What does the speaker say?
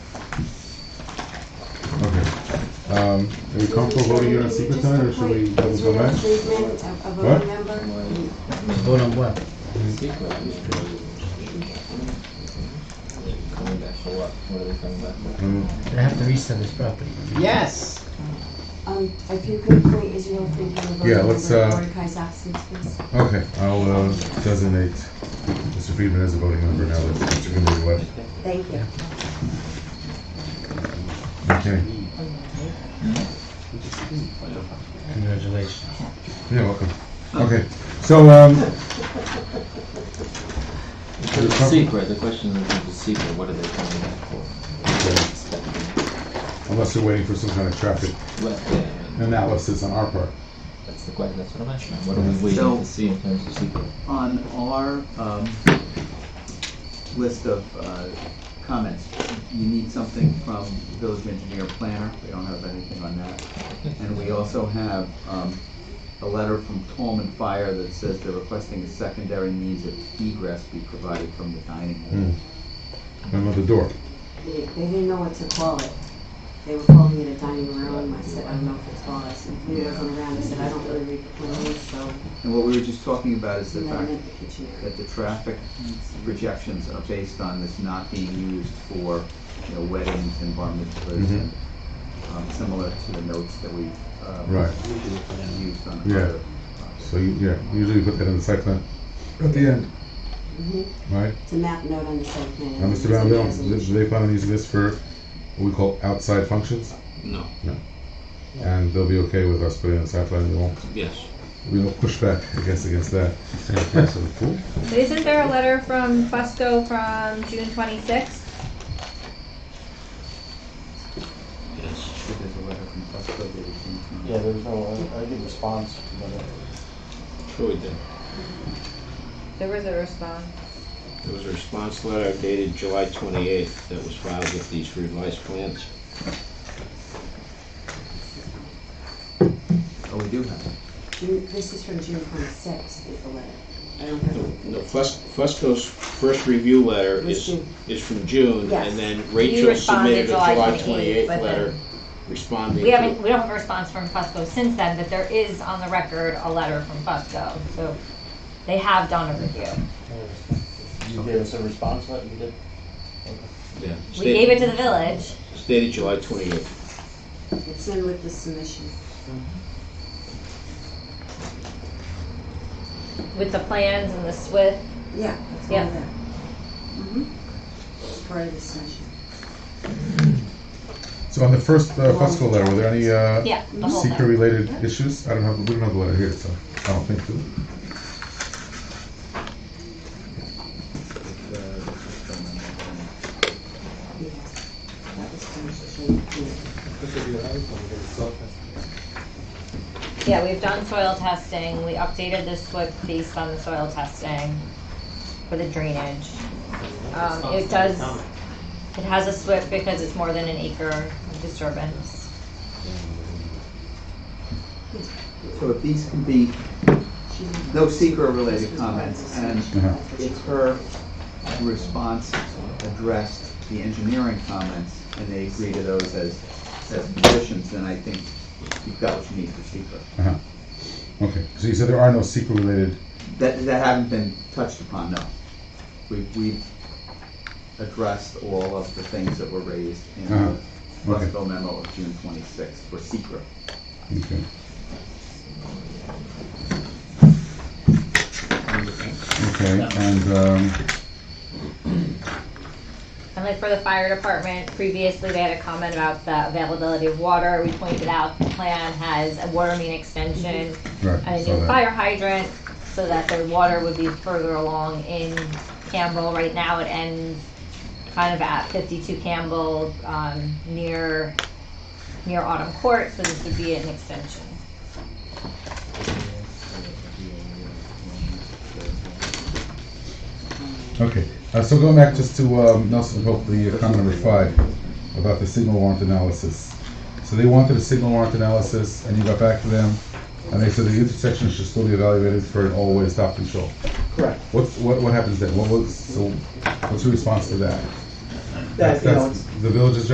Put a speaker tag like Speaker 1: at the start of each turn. Speaker 1: Um, Are we comfortable voting it on secret time, or should we double
Speaker 2: Just a
Speaker 1: go
Speaker 2: point.
Speaker 1: back?
Speaker 2: Is there an achievement of a
Speaker 1: What?
Speaker 2: voting member?
Speaker 3: Vote on what?
Speaker 4: Secret. Coming back for what? What are they coming back for?
Speaker 1: Um,
Speaker 3: They have to resell this property.
Speaker 5: Yes.
Speaker 2: Um, if you could point Israel Friedman a voting
Speaker 1: Yeah,
Speaker 2: member
Speaker 1: let's,
Speaker 2: in
Speaker 1: uh,
Speaker 2: Mordecai's absence, please.
Speaker 1: Okay, I'll uh, designate Mr. Friedman as a voting member now that Mr. Kinderly left.
Speaker 2: Thank you.
Speaker 1: Okay,
Speaker 3: Congratulations.
Speaker 1: you're welcome. Okay, so, um,
Speaker 4: The secret, the question is the secret, what are they coming back for?
Speaker 1: okay, unless you're waiting for some kind of traffic
Speaker 4: Well, yeah,
Speaker 1: analysis on our part.
Speaker 4: that's the question, that's what I'm asking, what are we waiting to see in terms of secret?
Speaker 5: On our um, list of uh, comments, you need something from village engineer planner. We don't have anything on that. And we also have um, a letter from Tolman Fire that says they're requesting a secondary means of egress be provided from the dining hall.
Speaker 1: Hmm. Another door.
Speaker 2: They they didn't know what to call it. They were calling it a dining room. I said, I don't know if it's called. I said, he wasn't around. I said, I don't really read the plans, so
Speaker 5: And what we were just talking about is the
Speaker 2: never
Speaker 5: fact
Speaker 2: meant the kitchen area.
Speaker 5: that the traffic rejections are based on this not being used for, you know, weddings and bar mitzvahs
Speaker 1: Mhm.
Speaker 5: and, um, similar to the notes that we've, uh,
Speaker 1: Right.
Speaker 5: used on
Speaker 1: Yeah.
Speaker 5: other.
Speaker 1: So, you- yeah, usually you put that in the site plan at the end,
Speaker 2: Mhm.
Speaker 1: right?
Speaker 2: It's a map note on the site plan.
Speaker 1: Now, Mr.
Speaker 2: It's a
Speaker 1: Randall, do
Speaker 2: resolution.
Speaker 1: do they plan on using this for what we call outside functions?
Speaker 6: No,
Speaker 1: And they'll be okay with us putting it in the site plan, we won't,
Speaker 6: yes.
Speaker 1: we won't push back, I guess, against that.
Speaker 7: But isn't there a letter from Fusco from June twenty-sixth?
Speaker 6: Yes.
Speaker 5: There's a letter from Fusco that it came from.
Speaker 8: Yeah, there's no, I, I didn't respond to that.
Speaker 6: Troy did.
Speaker 7: There was a response.
Speaker 6: There was a response letter dated July 28th that was filed with these revised plans.
Speaker 5: Oh, we do have it.
Speaker 2: June- This is from June twenty-sixth, is the letter. I don't have it.
Speaker 6: No, Fus- Fusco's first review letter
Speaker 2: Was
Speaker 6: is,
Speaker 2: June.
Speaker 6: is from June,
Speaker 2: Yes.
Speaker 6: and then
Speaker 7: You
Speaker 6: Rachel
Speaker 7: responded
Speaker 6: submitted a
Speaker 7: July
Speaker 6: July
Speaker 7: 28th,
Speaker 6: 28th
Speaker 7: but
Speaker 6: letter
Speaker 7: then-
Speaker 6: responding
Speaker 9: We haven't,
Speaker 6: to.
Speaker 9: we don't have a response from Fusco since then, but there is on the record a letter from Fusco, so they have done a review.
Speaker 8: You gave us a response, what you did?
Speaker 6: yeah,
Speaker 9: We
Speaker 6: stated-
Speaker 9: gave it to the village,
Speaker 6: It's dated July 28th.
Speaker 2: It's in with the submission.
Speaker 9: with the plans and the SWIP,
Speaker 2: Yeah, it's all
Speaker 9: Yeah.
Speaker 2: there. Mhm. It's part of the submission.
Speaker 1: So on the first uh, Fusco letter, were there any uh,
Speaker 9: yeah, the whole
Speaker 1: secret
Speaker 9: thing.
Speaker 1: related issues? I don't have, we don't have the letter here, so I don't think so.
Speaker 5: It's, uh, it's from another-
Speaker 2: Yeah. That was from June. yeah.
Speaker 9: Yeah, we've done soil testing, we updated the SWIP based on the soil testing for the drainage. Um, it does, it has a SWIP because it's more than an acre of disturbance.
Speaker 5: So if these can be,
Speaker 2: She didn't
Speaker 5: no secret related comments, and
Speaker 1: Uh-huh.
Speaker 5: if her response addressed the engineering comments, and they agree to those as, as conditions, then I think you've got what you need for secret.
Speaker 1: Uh-huh. Okay, so you said there are no secret related,
Speaker 5: That, that haven't been touched upon, no. We've, we've addressed all of the things that were raised in
Speaker 1: Uh-huh.
Speaker 5: the
Speaker 1: Okay.
Speaker 5: Westville memo of June twenty-sixth for secret.
Speaker 1: okay. Okay, and, um,
Speaker 9: And like for the fire department, previously they had a comment about the availability of water. We pointed out the plan has a water main extension
Speaker 1: right,
Speaker 9: and a
Speaker 1: saw
Speaker 9: new
Speaker 1: Mm-hmm. that.
Speaker 9: fire hydrant so that their water would be further along in Campbell. Right now it ends kind of at fifty-two Campbell, um, near, near Autumn Court, so this would be an extension.
Speaker 1: Okay, uh, so going back just to um, Nelson Pope, the uh, comment number five about the signal warrant analysis. So they wanted a signal warrant analysis, and you got back to them, and they said the intersection should still be evaluated for an all-way stop control.
Speaker 8: Correct.
Speaker 1: What's, what, what happens then? What was, so, what's your response to that?
Speaker 8: That, you know, it's-
Speaker 1: the village's